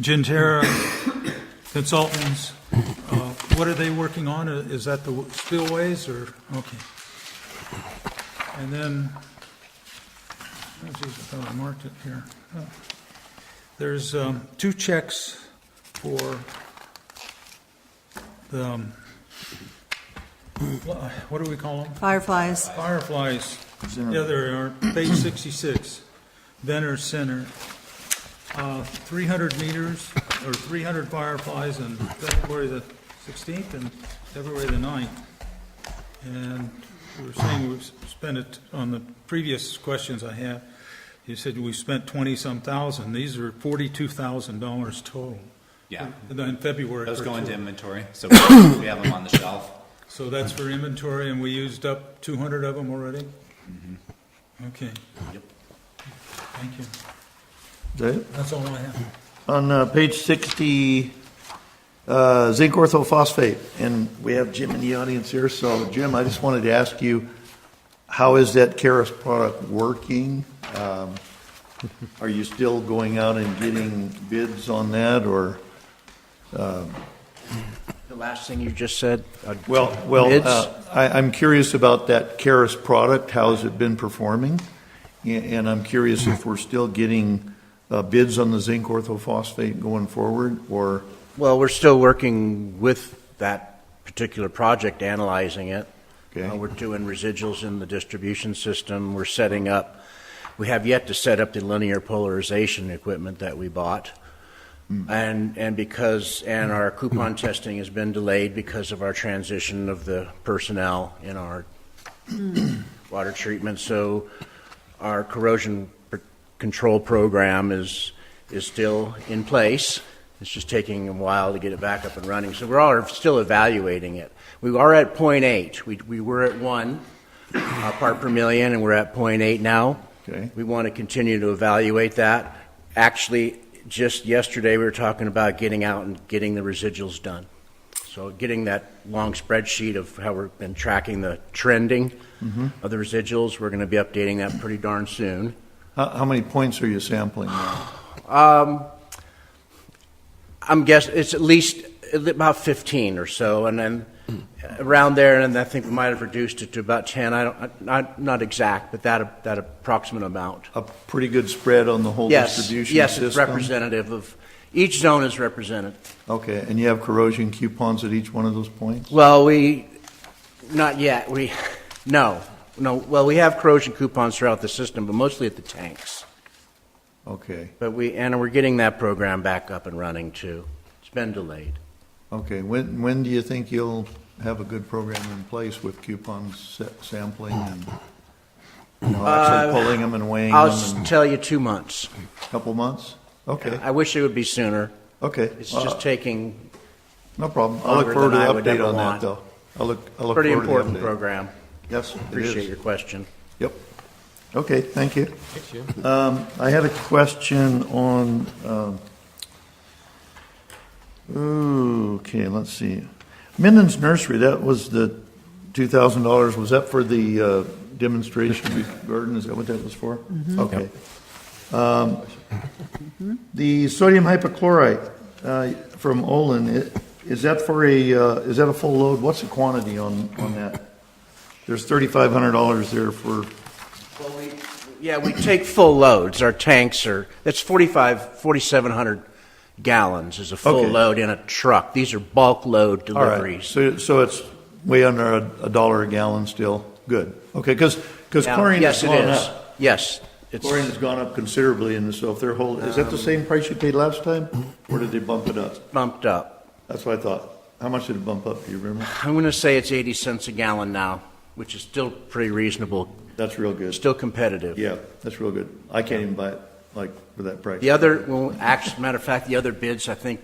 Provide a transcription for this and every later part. Gentera Consultants, uh, what are they working on? Uh, Is that the spillways or, okay. And then, oh, geez, I thought I marked it here. Oh. There's um, two checks for the, um, what do we call them? Fireflies, Fireflies, yeah, there are, page 66, Venner Center, uh, 300 meters, or 300 fireflies on February the 16th and February the 9th. And we were saying we've spent it, on the previous questions I had, you said we spent 20-some thousand, these are $42,000 total. Yeah. And then February. Those for go two. into inventory, so we have them on the shelf. So that's for inventory, and we used up 200 of them already? Okay. Yep. Thank you. Okay. That's all I have. On uh, page 60, uh, zinc orthophosphate, and we have Jim in the audience here, so Jim, I just wanted to ask you, how is that Karis product working? Um, Are you still going out and getting bids on that, or, The last thing you just said? uh, well, well, bids? uh, I, I'm curious about that Karis product, how has it been performing? A- And I'm curious if we're still getting uh, bids on the zinc orthophosphate going forward, or? Well, we're still working with that particular project, analyzing it. Okay. Uh, We're doing residuals in the distribution system, we're setting up, we have yet to set up the linear polarization equipment that we bought. And, and because, and our coupon testing has been delayed because of our transition of the personnel in our water treatment, so our corrosion pr- control program is, is still in place. It's just taking a while to get it back up and running, so we're all still evaluating it. We are at point eight, we, we were at one uh, part per million, and we're at point eight now. Okay. We want to continue to evaluate that. Actually, just yesterday, we were talking about getting out and getting the residuals done. So getting that long spreadsheet of how we've been tracking the trending of the residuals, we're going to be updating that pretty darn soon. How, how many points are you sampling now? I'm guessing it's at least about 15 or so, and then around there, and I think we might have reduced it to about 10. I don't, not, not exact, but that, that approximate amount. A pretty good spread on the whole Yes, distribution yes, system? it's representative of, each zone is represented. Okay, and you have corrosion coupons at each one of those points? Well, we, not yet, we, no, no, well, we have corrosion coupons throughout the system, but mostly at the tanks. Okay, But we, and we're getting that program back up and running too. It's been delayed. okay. When, when do you think you'll have a good program in place with coupons sa- sampling and, you know, actually pulling them and weighing Uh, I'll them s- in tell you two months. a couple months? Okay, I wish it would be sooner. okay. It's Uh, just taking No problem. I'll look longer forward to than I the would update ever on that, want. though. I'll look, I'll a look forward pretty to the update. important program. Yes, it is. Appreciate your question. Yep. Okay, thank you. Um, I had a question on, um, ooh, okay, let's see. Minden's Nursery, that was the $2,000, was that for the uh, demonstration garden? Is that what that was for? Okay. Um, The sodium hypochlorite uh, from Olin, i- is that for a, uh, is that a full load? What's the quantity on, on that? There's $3,500 there for Well, we, yeah, we take full loads. Our tanks are, that's 45, 4,700 gallons is a full Okay. load in a truck. These are bulk load All right. deliveries. So, so it's way under a, a dollar a gallon still? Good. Okay, because, because Now, chlorine has yes, it gone is. up. Yes, it's Um, Chlorine has gone up considerably in this, so if they're holding, is that the same price you paid last time? Or did they bump it up? bumped up. That's what I thought. How much did it bump up, do you remember? I'm going to say it's 80 cents a gallon now, which is still pretty reasonable, That's real good. still competitive. Yeah, that's real good. I can't even buy it, like, for that price. The other, well, actually, matter of fact, the other bids, I think,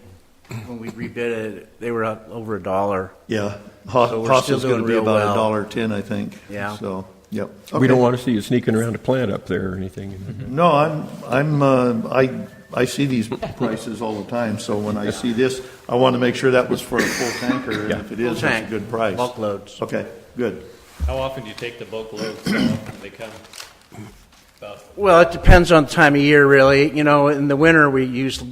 when we rebid it, they were up over a dollar. Yeah. Ho- So we're still Hostel's gonna doing be real about a well. dollar ten, I think. Yeah. So, yep. We don't Okay. want to see you sneaking around a plant up there or anything. No, I'm, I'm, uh, I, I see these prices all the time, so when I see this, I want to make sure that was for a full tanker, and if it is, it's a tank, good price. Bulk loads. Okay, good. How often do you take the bulk load, so often they come? About Well, it depends on the time of year, really. You know, in the winter, we use